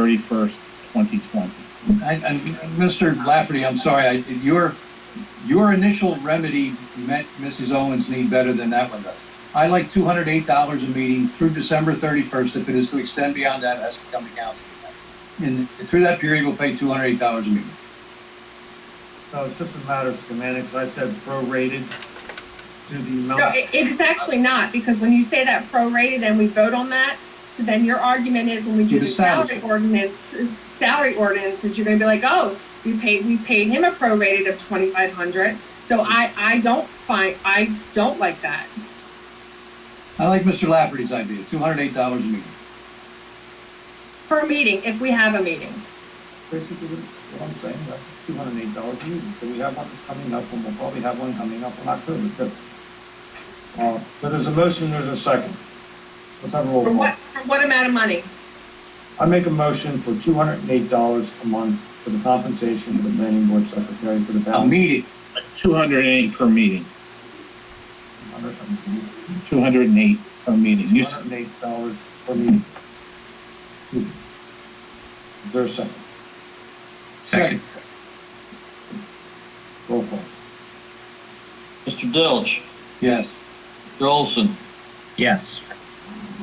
thirty-first, twenty twenty. And, and Mr. Lafferty, I'm sorry, I, your, your initial remedy met Mrs. Owens' need better than that one does. I like two hundred eight dollars a meeting through December thirty-first. If it is to extend beyond that, it has to come to council. And through that period, we'll pay two hundred eight dollars a meeting. No, it's just a matter of schematics. I said prorated to the No, amount. it, it's actually not, because when you say that prorated and we vote on that, so then your argument is when we do To the the salary. salary ordinance, salary ordinances, you're gonna be like, oh, we paid, we paid him a prorated of twenty-five hundred, so I, I don't find, I don't like that. I like Mr. Lafferty's idea, two hundred eight dollars a meeting. Per meeting, if we have a meeting, Basically, that's what I'm saying. That's just two hundred and eight dollars a meeting. So we have one that's coming up and we'll probably have one coming up in October too. Uh, so there's a motion, there's a second. Let's have a roll for call. what, for what amount of money? I make a motion for two hundred and eight dollars a month for the compensation for the planning board secretary for the A balance. meeting, Two hundred and eight per meeting, two hundred and eight per meeting. Two You s- hundred and eight dollars per meeting. Excuse me. Is there a second? second, Roll call. Mr. Dilch, yes. Mr. Olson, Yes.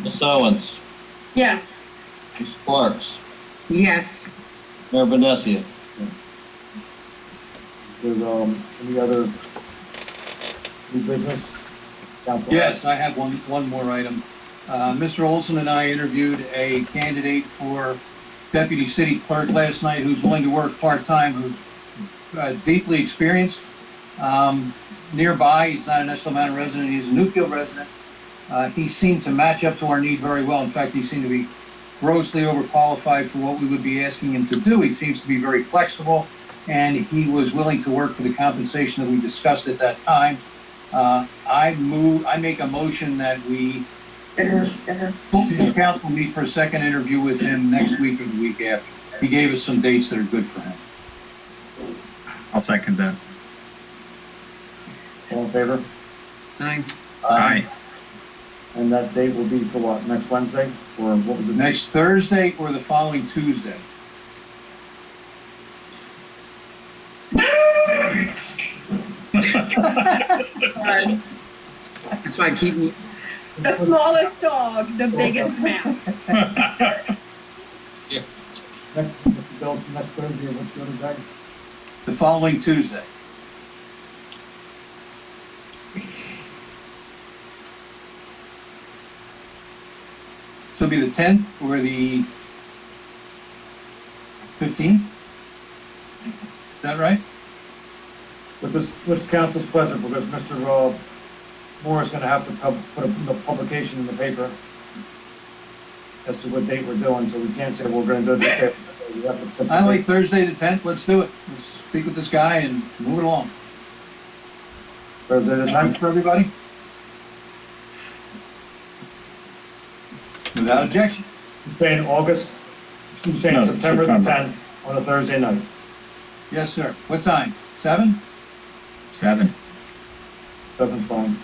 Ms. Owens, Yes, Ms. Sparks, Yes, Mayor Vinesia. There's, um, any other new business? Council? Yes, I have one, one more item. Uh, Mr. Olson and I interviewed a candidate for deputy city clerk last night who's willing to work part-time, who's uh, deeply experienced, um, nearby. He's not an Esselman resident, he's a Newfield resident. Uh, he seemed to match up to our need very well. In fact, he seemed to be grossly overqualified for what we would be asking him to do. He seems to be very flexible, and he was willing to work for the compensation that we discussed at that time. Uh, I move, I make a motion that we, full full council meet for a second interview with him next week or the week after. He gave us some dates that are good for him. I'll second that. All in favor? aye. Uh, Aye. And that date will be for what, next Wednesday, or what was The it? next Thursday or the following Tuesday. Sorry. That's why I keep, the smallest dog, the biggest mouth. Next, Mr. Bill, next Thursday, what's your other day? The following Tuesday. So it'll be the tenth or the fifteenth? Is that right? But this, what's council's pleasure, because Mr. Rob Moore is gonna have to pub, put a a publication in the paper as to what date we're doing, so we can't say we're gonna do this date. We have to put the I date. like Thursday the tenth, let's do it. Let's speak with this guy and move it along. Thursday the Time time, for everybody? Without objection. saying August, you're saying No, September the September. tenth, on a Thursday night. Yes, sir. What time? Seven? Seven. Seven's fine.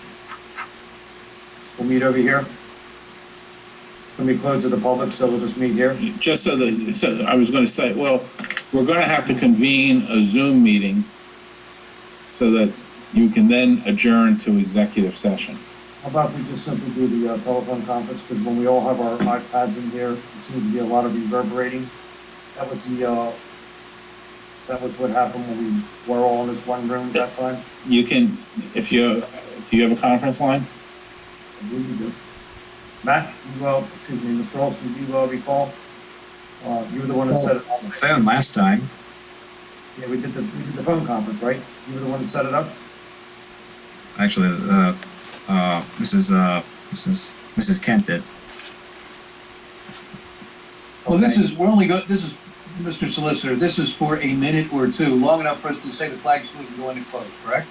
We'll meet over here. It's gonna be closed to the public, so we'll just meet here. Just so that, so I was gonna say, well, we're gonna have to convene a Zoom meeting so that you can then adjourn to executive session. How about if we just simply do the uh, telephone conference, because when we all have our iPads in here, there seems to be a lot of reverberating. That was the, uh, that was what happened when we were all in this one room that time. You can, if you, do you have a conference line? I believe you do. Matt, you, uh, excuse me, Mr. Olson, do you uh, recall? Uh, you were the one that set it, On the phone last time. yeah, we did the, we did the phone conference, right? You were the one that set it up? Actually, uh, uh, Mrs. Uh, Mrs. Mrs. Kent did. Well, this Okay. is, we're only go, this is, Mr. Solicitor, this is for a minute or two, long enough for us to say the flag salute and go into close, correct?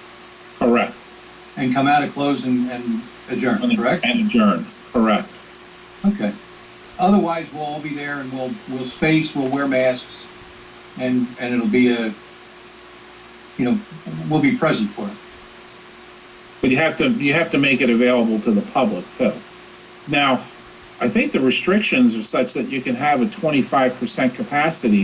Correct. And come out of close and, and adjourn, correct? And adjourn, correct. Okay. Otherwise, we'll all be there and we'll, we'll space, we'll wear masks, and, and it'll be a, you know, we'll be present for it. But you have to, you have to make it available to the public too. Now, I think the restrictions are such that you can have a twenty-five percent capacity